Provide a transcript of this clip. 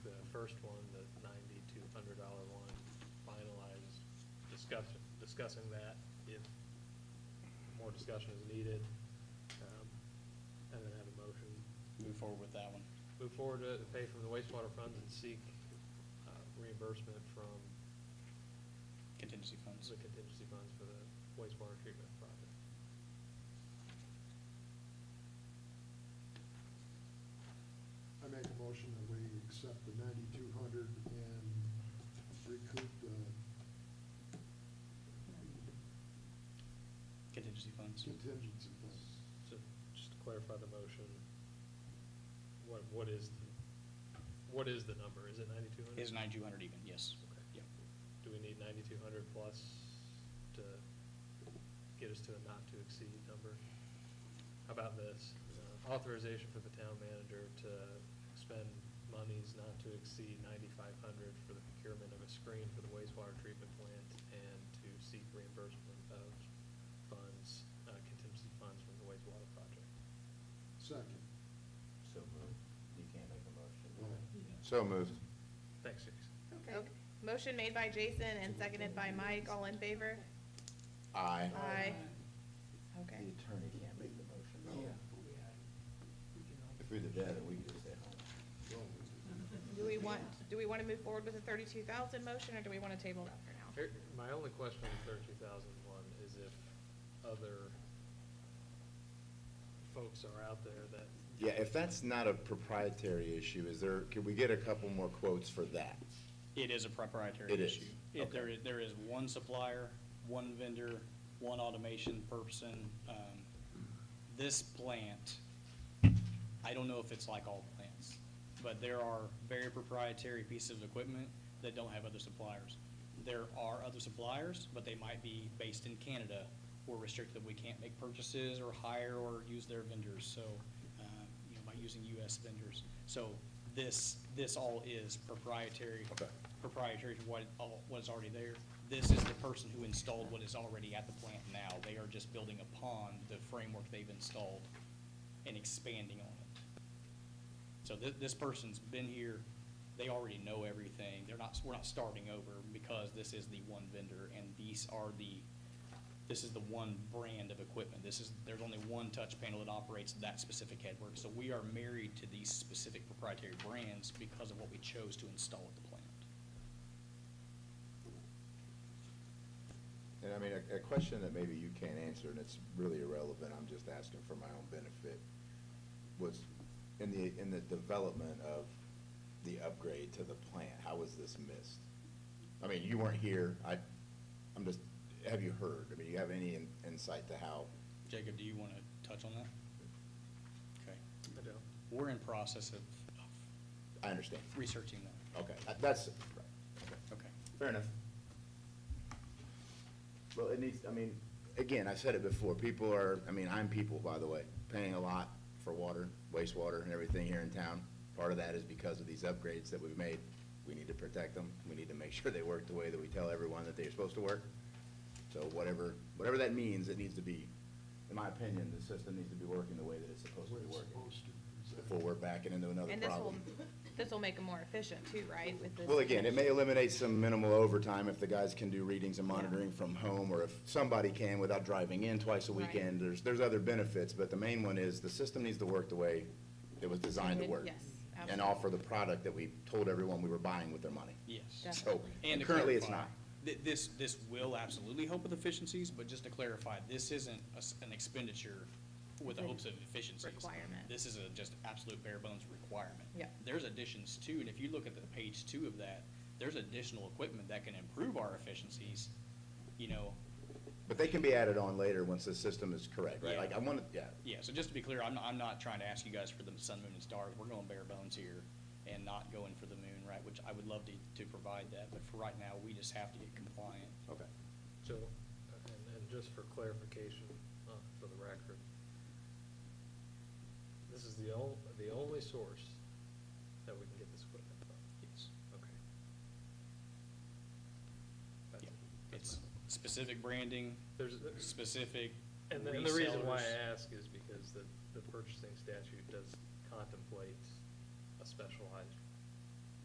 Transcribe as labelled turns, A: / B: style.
A: first one, the ninety-two hundred dollar one, finalized, discussion, discussing that if more discussion is needed. um, And then have a motion,
B: move forward with that one.
A: move forward to pay from the wastewater funds and seek uh, reimbursement from
B: Contingency funds.
A: the contingency funds for the wastewater treatment project.
C: I make a motion that we accept the ninety-two hundred and recoup the
B: Contingency funds.
C: contingency fund.
A: So just to clarify the motion, what, what is, the- what is the number? Is it ninety-two hundred?
B: Is ninety-two hundred even, yes.
A: Okay.
B: Yep.
A: Do we need ninety-two hundred plus to get us to a not-to-exceed number? How about this, Uh, authorization for the town manager to spend monies not to exceed ninety-five hundred for the procurement of a screen for the wastewater treatment plant and to seek reimbursement of funds, uh, contingency funds from the wastewater project.
C: Second.
D: So moved. You can't make a motion.
E: So moved.
A: Thanks, Jason.
F: Okay, motion made by Jason and seconded by Mike, all in favor?
E: Aye.
F: Aye.
D: The
F: Okay,
D: attorney can't make the motion.
E: If
D: If we did that, we could just say, oh,
F: do we want, do we want to move forward with the thirty-two thousand motion, or do we want to table that for now?
A: Here- My only question on thirty-two thousand one is if other folks are out there that,
E: Yeah, if that's not a proprietary issue, is there, could we get a couple more quotes for that?
B: It is a proprietary
E: It is,
B: issue. It- There is, there is one supplier, one vendor, one automation person. Um, This plant, I don't know if it's like all plants, but there are very proprietary pieces of equipment that don't have other suppliers. There are other suppliers, but they might be based in Canada. We're restricted, we can't make purchases or hire or use their vendors, so, uh, you know, by using US vendors. So this, this all is proprietary
E: Okay.
B: proprietary to what, all- what is already there. This is the person who installed what is already at the plant now. They are just building upon the framework they've installed and expanding on it. So thi- this person's been here, they already know everything. They're not, we're not starting over because this is the one vendor and these are the, this is the one brand of equipment. This is, there's only one touch panel that operates that specific headwork. So we are married to these specific proprietary brands because of what we chose to install at the plant.
E: And I mean, a, a question that maybe you can't answer, and it's really irrelevant, I'm just asking for my own benefit, was in the, in the development of the upgrade to the plant, how was this missed? I mean, you weren't here, I, I'm just, have you heard? I mean, do you have any in- insight to how?
B: Jacob, do you want to touch on that? Okay.
A: I don't,
B: We're in process of of
E: I understand.
B: researching that.
E: Okay, that's, right, okay.
B: Okay.
E: Fair enough. Well, it needs, I mean, again, I've said it before, people are, I mean, I'm people, by the way, paying a lot for water, wastewater and everything here in town. Part of that is because of these upgrades that we've made. We need to protect them. We need to make sure they work the way that we tell everyone that they're supposed to work. So whatever, whatever that means, it needs to be, in my opinion, the system needs to be working the way that it's supposed to
C: Way
E: be
C: it's
E: working.
C: supposed to.
E: Before we're backing into another
F: And this will,
E: problem.
F: this will make them more efficient too, right? with this-
E: Well, again, it may eliminate some minimal overtime if the guys can do readings and monitoring from home, or if somebody can without driving in twice a
F: Right.
E: weekend. There's, there's other benefits, but the main one is the system needs to work the way it was designed to work.
F: Yes,
E: And
F: absolutely.
E: offer the product that we told everyone we were buying with their money.
B: Yes.
E: So,
F: Definitely.
B: And
E: and
B: to
E: currently it's
B: clarify,
E: not.
B: thi- This, this will absolutely help with efficiencies, but just to clarify, this isn't a s- an expenditure with the hopes of efficiencies.
F: Requirement.
B: This is a just absolute bare bones requirement.
F: Yeah.
B: There's additions too, and if you look at the page two of that, there's additional equipment that can improve our efficiencies, you know,
E: But they can be added on later once the system is correct, right?
B: Yeah.
E: Like, I want to, yeah.
B: Yeah, so just to be clear, I'm, I'm not trying to ask you guys for the sun, moon, and stars. We're going bare bones here and not going for the moon, right? Which I would love to, to provide that, but for right now, we just have to get compliant.
E: Okay.
A: so, and, and just for clarification, uh, for the record, this is the ol- the only source that we can get this equipment from?
B: Yes.
A: Okay. That's-
B: Yeah.
A: that's
B: It's
A: my-
B: specific branding,
A: There's,
B: specific
A: And the, and the reason why
B: resellers.
A: I ask is because the, the purchasing statute does contemplate a specialized